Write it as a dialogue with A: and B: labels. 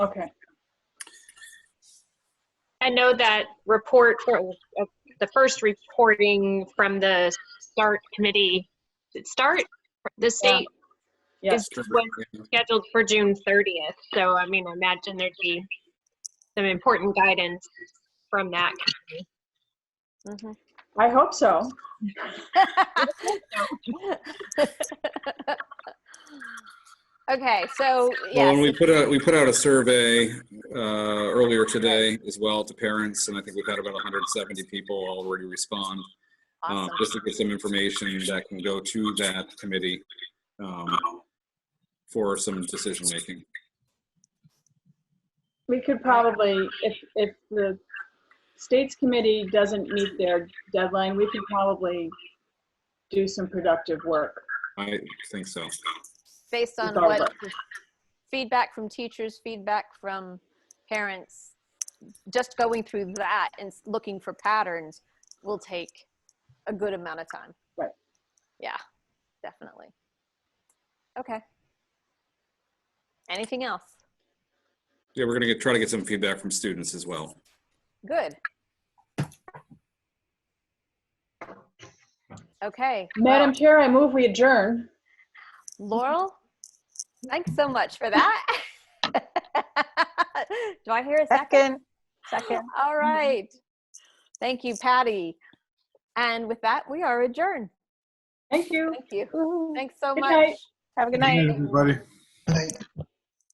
A: Okay,
B: I know that report, or, uh, the first reporting from the START committee, is it START? The state
A: Yeah.
B: is when scheduled for June 30th. So, I mean, I imagine there'd be some important guidance from that.
A: I hope so.
C: Okay, so,
D: Well, and we
C: yes,
D: put out, we put out a survey uh, earlier today as well to parents, and I think we've had about 170 people already respond. um,
C: awesome.
D: Just to get some information that can go to that committee um, for some decision-making.
A: We could probably, if, if the state's committee doesn't meet their deadline, we could probably do some productive work.
D: I think so.
C: Based on
A: regardless.
C: what feedback from teachers, feedback from parents, just going through that and s- looking for patterns will take a good amount of time.
A: Right.
C: Yeah, definitely. Okay. Anything else?
D: Yeah, we're gonna get, try to get some feedback from students as well.
C: Good. Okay. well-
A: Madam Chair, I move we adjourn.
C: Laurel, thanks so much for that. Do I hear a second?
E: Second, second.
C: All right. Thank you, Patty. And with that, we are adjourned.
A: Thank you.
C: Thank you.
E: Woo.
C: Thanks so
A: Good
C: much.
A: night.
E: Have a good
F: Good
E: night.
F: night, everybody.